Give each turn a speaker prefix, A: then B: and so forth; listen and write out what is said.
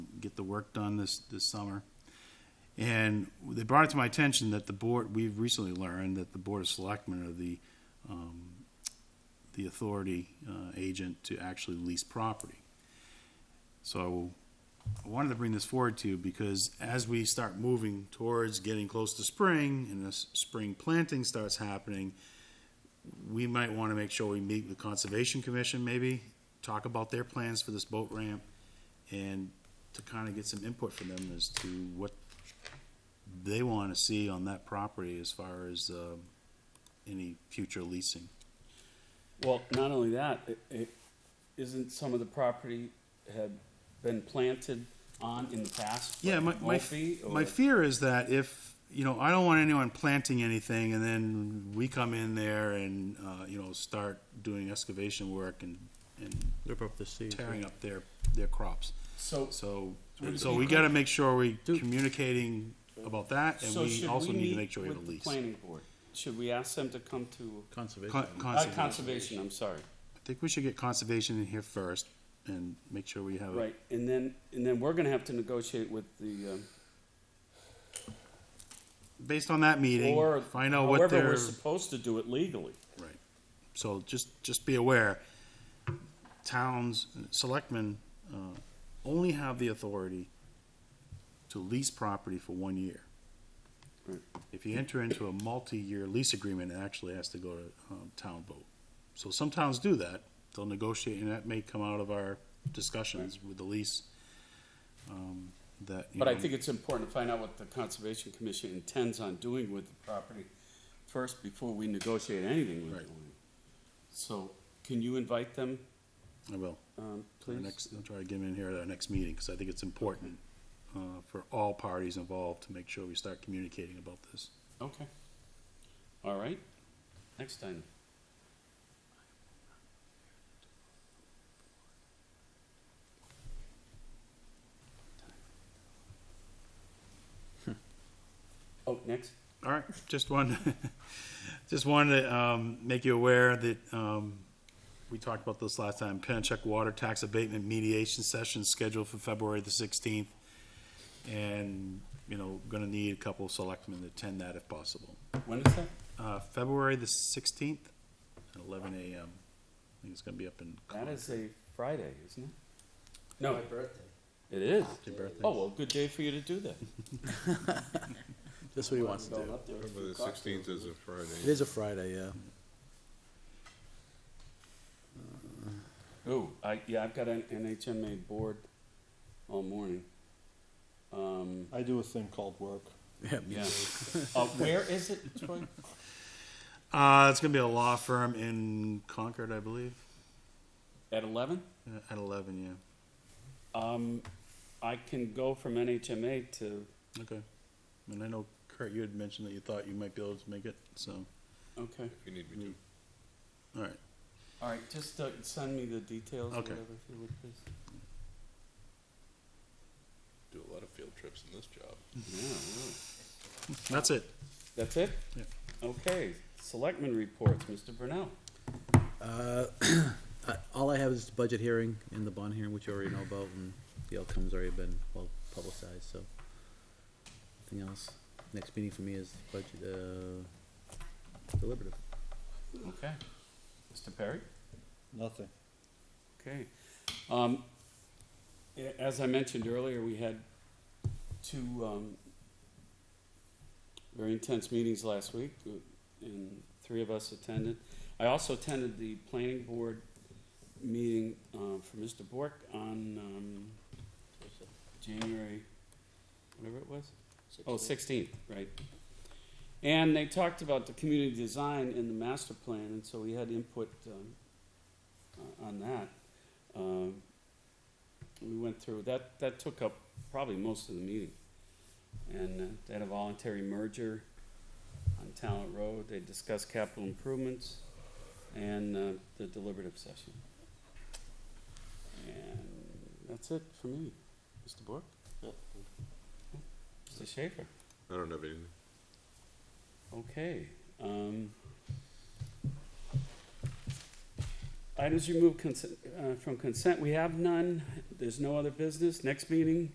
A: the work done this, this summer. And they brought it to my attention that the board, we've recently learned that the Board of Selectmen are the, um, the authority, uh, agent to actually lease property. So I wanted to bring this forward to you because as we start moving towards getting close to spring and this spring planting starts happening, we might want to make sure we meet with Conservation Commission maybe, talk about their plans for this boat ramp and to kind of get some input from them as to what they want to see on that property as far as, uh, any future leasing.
B: Well, not only that, it, it, isn't some of the property had been planted on in the past?
A: Yeah, my,
B: like
A: my,
B: Mulphy or-
A: my fear is that if, you know, I don't want anyone planting anything and then we come in there and, uh, you know, start doing excavation work and, and
C: Rip up the seeds.
A: tearing up their, their crops.
B: So,
A: So, so we gotta make sure we are communicating about that and
B: so
A: we
B: should
A: also
B: we
A: need to make
B: meet
A: sure we have
B: with
A: a
B: the
A: lease.
B: planning board? Should we ask them to come to,
C: Conservation.
A: Con-
B: uh,
A: Conservation, I
B: conservation, I'm sorry,
A: think we should get conservation in here first and make sure we have,
B: right, and then, and then we're gonna have to negotiate with the, um,
A: based on that meeting,
B: or
A: find out what
B: However,
A: their,
B: we're supposed to do it legally.
A: right. So just, just be aware, towns, selectmen, uh, only have the authority to lease property for one year.
B: Right.
A: If you enter into a multi-year lease agreement, it actually has to go to, um, town vote. So some towns do that, they'll negotiate, and that may come out of our discussions with the lease. um, That, you
B: But I
A: know,
B: think it's important to find out what the Conservation Commission intends on doing with the property first before we negotiate anything with
A: Right.
B: them. So can you invite them,
A: I will.
B: um,
A: Our
B: please?
A: next, I'll try to get him in here at our next meeting, because I think it's important uh, for all parties involved to make sure we start communicating about this.
B: Okay. All right. Next item. Hmm. Oh, next.
A: All right, just wanted, just wanted to um, make you aware that um, we talked about this last time, Pennachuck Water Tax Abatement Mediation Session scheduled for February the 16th. And, you know, going to need a couple of selectmen to attend that if possible.
B: When is that?
A: Uh, February the 16th at 11 a.m. I think it's going to be up in.
B: That
A: Concord.
B: is a Friday, isn't it? No,
D: birthday.
B: it is.
A: Your birthday.
B: Oh, well, good day for you to do that.
C: That's what he wants to do.
E: Remember the sixteenth is a
C: It
E: Friday.
C: is a Friday, yeah.
B: Ooh, I, yeah, I've got an NHMA board all morning. Um,
F: I do a thing called work.
C: Yeah, me
B: yeah.
C: too.
B: Uh, where is it, Troy?
A: Uh, it's gonna be a law firm in Concord, I believe,
B: At eleven?
A: uh, at eleven. Yeah.
B: Um, I can go from NHMA to,
A: Okay. And I know Kurt, you had mentioned that you thought you might be able to make it. So,
B: okay.
E: If you need me to.
A: all right.
B: All right, just uh, send me the details or
A: Okay.
B: whatever, if you would, please.
E: Do a lot of field trips in this job.
B: Yeah, really.
A: That's it.
B: That's it?
A: Yeah.
B: Okay, selectmen reports, Mr. Brunel.
C: Uh, I- All I have is the budget hearing and the bond hearing, which you already know about, and the outcome's already been well publicized, so. Nothing else. Next meeting for me is budget, uh, deliberative.
B: Okay. Mr. Perry?
F: Nothing.
B: Okay. Um, a- as I mentioned earlier, we had two, um, very intense meetings last week, uh, and three of us attended. I also attended the planning board meeting, uh, for Mr. Bork on, um, January, whatever it was? Oh, sixteenth, right. And they talked about the community design in the master plan, and so we had input, um, uh, on that. Um, We went through, that, that took up probably most of the meeting. And uh, they had a voluntary merger on Talent Road, they discussed capital improvements and uh, the deliberative session. And that's it for me. Mr. Bork? Mr. Schaefer?
E: I don't have anything.
B: Okay. um, Items removed consent, uh, from consent, we have none. There's no other business. Next meeting,